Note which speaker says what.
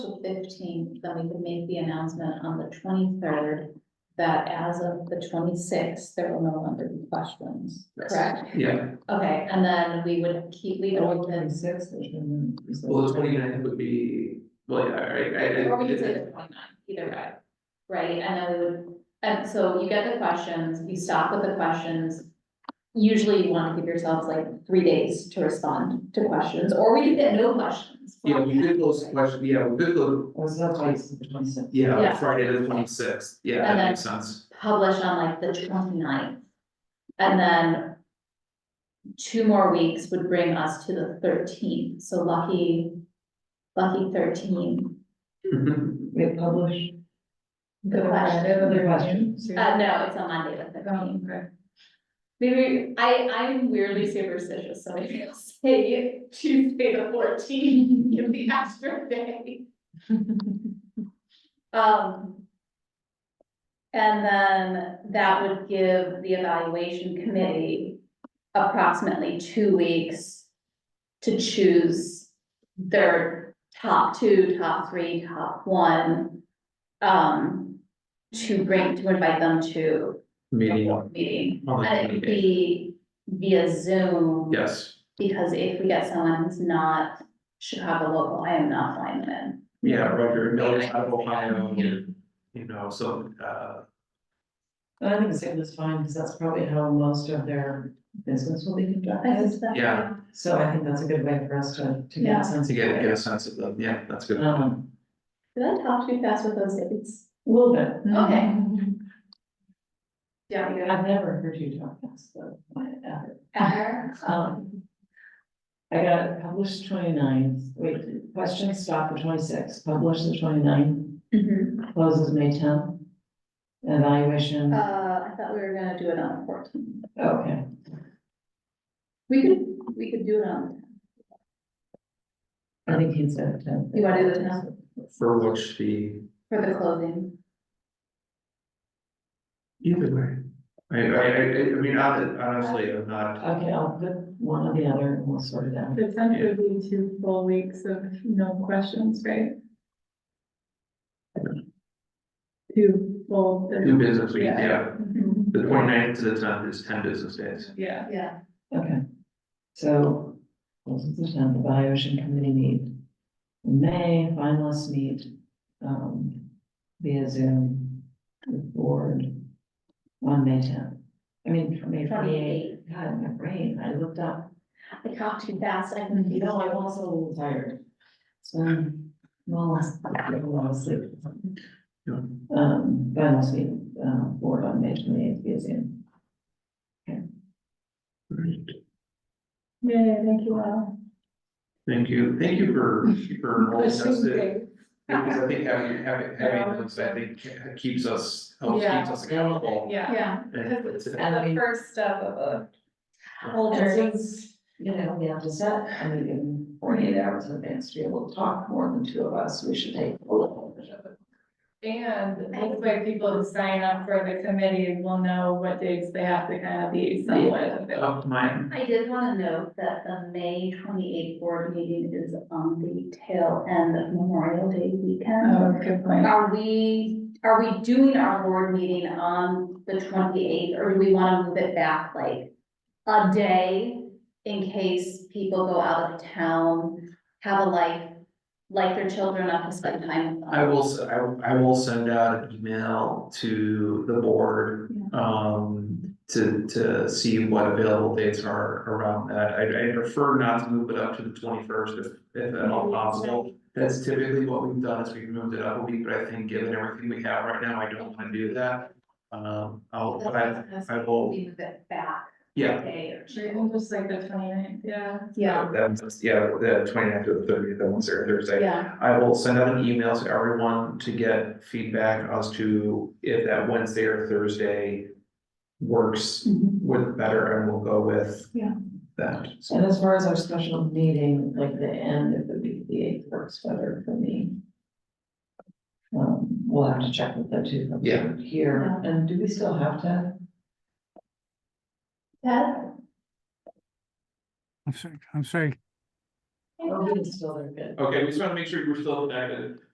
Speaker 1: fifteenth, then we could make the announcement on the twenty-third that as of the twenty-sixth, there will no longer be questions, correct?
Speaker 2: Yeah,
Speaker 1: Okay, and then we would keep, leave it open.
Speaker 2: well, the 29th would be, well, yeah, I, I, I.
Speaker 1: Or we could say the 29th, either way, right, and then we would, and so you get the questions, you stop with the questions. Usually you wanna give yourselves like three days to respond to questions, or we could get no questions.
Speaker 2: Yeah, we could close the question, yeah, we could go,
Speaker 3: Was that twice, the twenty-sixth?
Speaker 2: yeah,
Speaker 1: Yeah.
Speaker 2: Friday the twenty-sixth, yeah,
Speaker 1: And
Speaker 2: that
Speaker 1: then-
Speaker 2: makes sense.
Speaker 1: Publish on like the 29th, and then. Two more weeks would bring us to the thirteenth, so lucky, lucky thirteen,
Speaker 3: We publish.
Speaker 1: good question.
Speaker 3: The questions.
Speaker 1: Uh, no, it's on Monday, the thirteenth.
Speaker 3: okay.
Speaker 1: Maybe, I, I'm weirdly superstitious, so maybe I'll say Tuesday the fourteenth, give the extra day. Um. And then that would give the evaluation committee approximately two weeks to choose their top two, top three, top one. Um, to bring, to invite them to
Speaker 2: Meeting
Speaker 1: a
Speaker 2: on
Speaker 1: board Meeting,
Speaker 2: on the
Speaker 1: and it
Speaker 2: twenty
Speaker 1: could be via Zoom.
Speaker 2: yes,
Speaker 1: Because if we get someone who's not Chicago local, I am not flying them in.
Speaker 2: yeah, Roger Miller's out of
Speaker 1: Yeah, I
Speaker 2: Ohio,
Speaker 1: think
Speaker 2: and, you know, so, uh,
Speaker 3: I think Zoom is fine, because that's probably how most of their business will be
Speaker 1: Thanks,
Speaker 3: conducted,
Speaker 1: Steph.
Speaker 2: Yeah.
Speaker 3: so I think that's a good way for us to, to get
Speaker 1: Yeah.
Speaker 3: a sense.
Speaker 2: to
Speaker 3: of
Speaker 2: get,
Speaker 3: it.
Speaker 2: get a sense of them, yeah, that's good.
Speaker 3: Um,
Speaker 1: Did I talk too fast with those dates?
Speaker 3: a little bit. Um,
Speaker 1: Okay. Yeah, we
Speaker 3: I've never heard you talk fast, though, my- ever.
Speaker 1: Ever?
Speaker 3: Um, I got it published 29th. wait, questions stop the twenty-sixth, publish the 29th.
Speaker 1: Mhm.
Speaker 3: closes May tenth. Evaluation,
Speaker 1: Uh,
Speaker 3: okay,
Speaker 1: I thought we were gonna do it on the fourteenth.
Speaker 3: okay,
Speaker 1: We could, we could do it on,
Speaker 3: I think he said tenth.
Speaker 1: You wanna do the 10th?
Speaker 2: For which the,
Speaker 1: for the clothing.
Speaker 2: either way, I, I, I, I mean, hon- honestly, I'm not,
Speaker 3: Okay, I'll put one or the other and we'll sort it out.
Speaker 4: The tenth would be two full weeks of no questions, right? Two full.
Speaker 2: new business, week, yeah,
Speaker 4: Mhm.
Speaker 2: the 29th to the tenth is ten business days.
Speaker 4: Yeah,
Speaker 1: Yeah.
Speaker 3: Okay, so, closes the tenth, evaluation committee meet. in May, finalists meet, um, via Zoom, with board, on May tenth. I mean, May twenty-eighth, God, my brain, I looked up,
Speaker 1: I talked too fast, I can.
Speaker 3: you know, I'm also a little tired. So, I'm all last, I a lot of sleep.
Speaker 2: Yeah.
Speaker 3: Um, finalists meet, uh, board on May twenty-eighth via Zoom.
Speaker 2: Right.
Speaker 4: yeah, thank you all.
Speaker 2: Thank you, thank you for, for all this,
Speaker 4: Questions,
Speaker 2: because
Speaker 4: great.
Speaker 2: I think having, having, having, those, I think keeps us, helps keeps us accountable.
Speaker 4: Yeah,
Speaker 1: Yeah,
Speaker 2: And it's-
Speaker 4: the first step of a.
Speaker 1: old
Speaker 3: And
Speaker 1: jersey.
Speaker 3: since, you know, we have to set a meeting forty-eight hours in advance to be able to talk more than two of us, we should take full advantage of it.
Speaker 4: And hopefully people who sign up for the committee will know what dates they have to kind of be somewhat available.
Speaker 2: Up mine,
Speaker 1: I did wanna note that the May twenty-eighth board meeting is on the tail end of Memorial Day
Speaker 4: Oh,
Speaker 1: weekend.
Speaker 4: good point.
Speaker 1: Are we, are we doing our board meeting on the twenty-eighth, or do we wanna move it back like a day? In case people go out of town, have a life, like their children up to spend time with them?
Speaker 2: I will, s- I, I will send out an email to the board, um, to, to see what available dates are around that. I, I prefer not to move it up to the twenty-first if, if at all possible. That's typically what we've done, is we've moved it up a week, but I think given everything we have right now, I don't wanna do that. Um, I'll, I,
Speaker 1: That's-
Speaker 2: I will,
Speaker 1: We move it back a
Speaker 2: yeah,
Speaker 1: day or two.
Speaker 4: Right, Just like the 29th. yeah.
Speaker 1: Yeah,
Speaker 2: That's, yeah, the 29th to the thirtieth, that one's there Thursday.
Speaker 1: yeah,
Speaker 2: I will send out an email to everyone to get feedback as to if that Wednesday or Thursday works
Speaker 1: Mhm.
Speaker 2: with better, and we'll go with
Speaker 1: Yeah.
Speaker 2: that.
Speaker 3: And as far as our special meeting, like the end of the week, the eighth works better for me. Um, we'll have to check with the two of
Speaker 2: Yeah.
Speaker 3: them here, and do we still have to?
Speaker 1: Ted?
Speaker 5: I'm sorry, I'm sorry,
Speaker 3: Oh, we can still, they're good.
Speaker 2: Okay, we just want to make sure we're still connected.